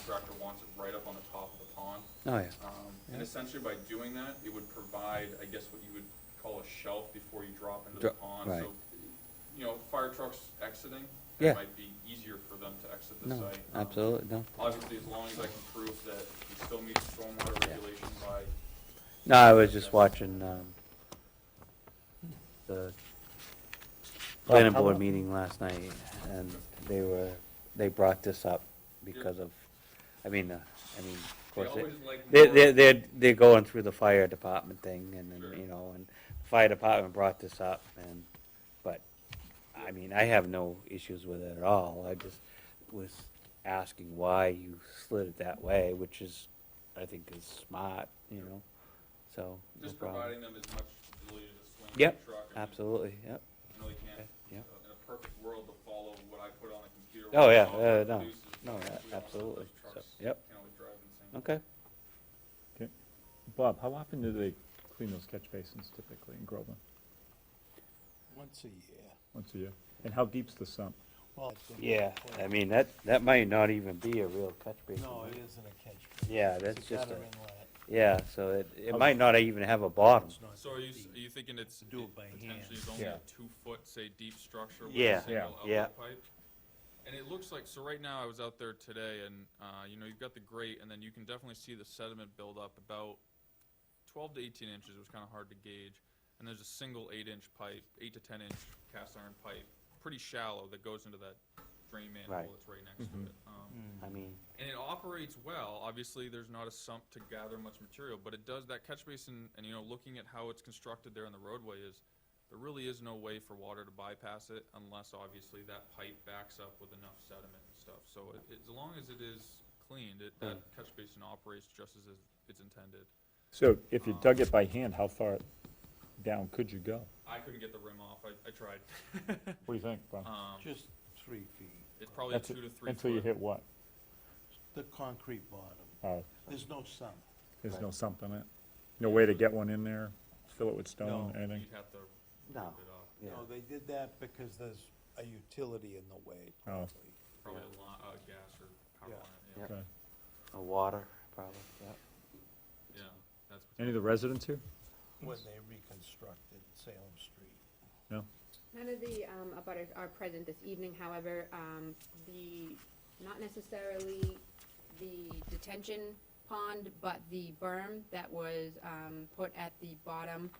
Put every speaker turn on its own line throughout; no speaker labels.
contractor wants it right up on the top of the pond.
Oh, yeah.
Um, And essentially by doing that, it would provide, I guess, what you would call a shelf before you drop into the
Dro-
pond.
right.
So, You know, fire trucks exiting,
Yeah.
it might be easier for them to exit the
No,
site. Um,
absolutely, no.
Obviously, as long as I can prove that we still meet stormwater
Yeah.
regulation by,
No, I was just watching, um, the planning board meeting last night, and they were, they brought this up because of, I mean, uh, I mean, of
they
course,
always
they-
like
they,
more-
they're, they're, they're going through the fire department thing, and
Sure.
then, you know, and the fire department brought this up, and, but, I mean, I have no issues with it at all, I just was asking why you slid it that way, which is, I think is smart, you know, so. no
Just
problem.
providing them as much ability to swing the
Yep,
truck. I mean,
Absolutely, yep,
I know they can't,
Okay, yep.
uh, in a perfect world, to follow what I put on a computer.
Oh,
what
yeah,
software
uh, no,
produces,
no,
because
a-
we all know that
absolutely.
those
So,
trucks
yep.
can only drive in sync.
okay.
Bob, how often do they clean those catch basins typically in Groveland?
Once a year.
Once a year? And how deep's the sump?
Well, it's a-
Yeah, I mean, that, that might not even be a real catch basin.
No, it isn't a Oh. catch basin.
Yeah,
It's
that's just
gutter
a-
inlet.
Yeah, so it, it might not even have a bottom.
It's not
So are you, s-
deep.
are you thinking it's,
Do it by
it potentially is
hand.
only
Yeah.
a two-foot, say, deep structure with
Yeah.
a single
Yeah.
outlet pipe? And it looks like, so right now, I was out there today, and, uh, you know, you've got the grate, and then you can definitely see the sediment build up about twelve to eighteen inches, it was kinda hard to gauge. And there's a single eight-inch pipe, eight to ten-inch cast iron pipe, pretty shallow, that goes into that drain
Right. Mm-hmm.
manhole that's right next to it. Um,
I mean,
and it operates well. Obviously, there's not a sump to gather much material, but it does that catch basin. And you know, looking at how it's constructed there in the roadway, is there really is no way for water to bypass it unless obviously that pipe backs up with enough sediment and stuff. So it, it- as long as it is cleaned, it, that catch basin operates just as is- it's intended.
So if you dug it by hand, how far down could you go?
I couldn't get the rim off. I, I tried.
What do you think, Bob?
um,
Just three feet.
it's probably a
That's
two
it-
to three.
Until you
foot.
hit what?
The concrete bottom.
Uh,
There's no sump.
There's
Right.
no sump in it? No way to get one in there? Fill it with stone,
No.
anything?
You'd have to
No.
rip it off.
yeah,
No, they did that because there's a utility in the way.
Oh.
probably.
Probably a lot, uh, gas or power
Yeah.
line. Yeah.
Yep.
Okay.
a water, probably, yeah.
yeah. That's
Any of the residents here?
When they reconstructed Salem Street.
No?
None of the um, abutters are present this evening, however, um, the, not necessarily the detention pond, but the berm that was um, put at the bottom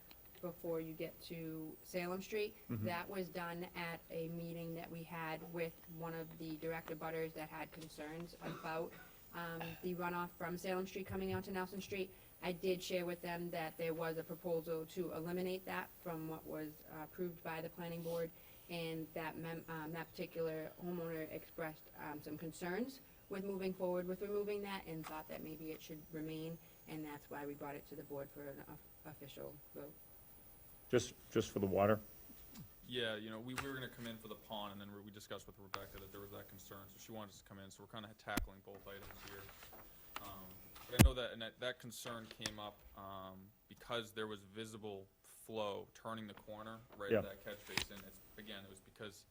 before you get to Salem Street, that was done at a meeting that we had with one of the direct abutters that had concerns about um, the runoff from Salem Street coming out to Nelson Street. I did share with them that there was a proposal to eliminate that from what was uh, approved by the planning board, and that mem, um, that particular homeowner expressed, um, some concerns with moving forward with removing that, and thought that maybe it should remain, and that's why we brought it to the board for an of- official vote.
Just, just for the water?
Yeah, you know, we, we were gonna come in for the pond, and then we- we discussed with Rebecca that there was that concern, so she wanted us to come in, so we're kinda tackling both items here. Um, But I know that, and that, that concern came up, um, because there was visible flow turning the corner right
Yeah.
at that catch basin. It's, again, it was because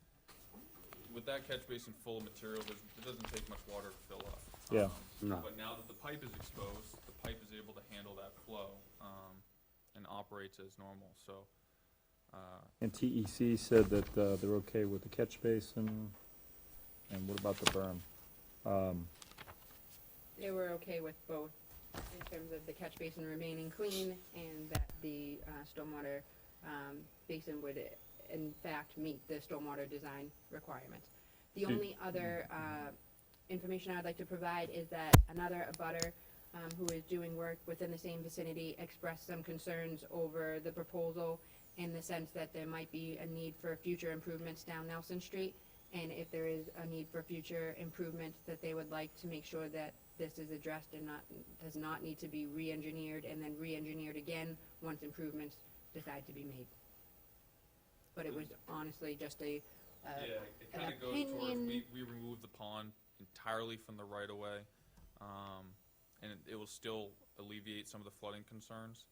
with that catch basin full of material, there's, it doesn't take much water to fill up.
Yeah.
Um,
No.
But now that the pipe is exposed, the pipe is able to handle that flow, um, and operates as normal, so, uh,
And TEC said that uh, they're okay with the catch basin, and what about the berm?
They were okay with both, in terms of the catch basin remaining clean, and that the uh, stormwater um, basin would in fact meet the stormwater design requirements. The
Do-
only other uh, information I'd like to provide is that another abutter um, who is doing work within the same vicinity expressed some concerns over the proposal in the sense that there might be a need for future improvements down Nelson Street. And if there is a need for future improvements, that they would like to make sure that this is addressed and not, does not need to be re-engineered and then re-engineered again once improvements decide to be made. But it was honestly just a, uh,
Yeah, it
an
kind of goes towards,
opinion.
we, we removed the pond entirely from the right of way. Um, and it, it will still alleviate some of the flooding concerns.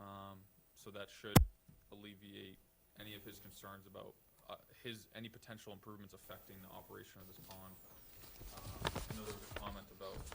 Um, so that should alleviate any of his concerns about, uh, his, any potential improvements affecting the operation of this pond. Uh, I know there was a comment about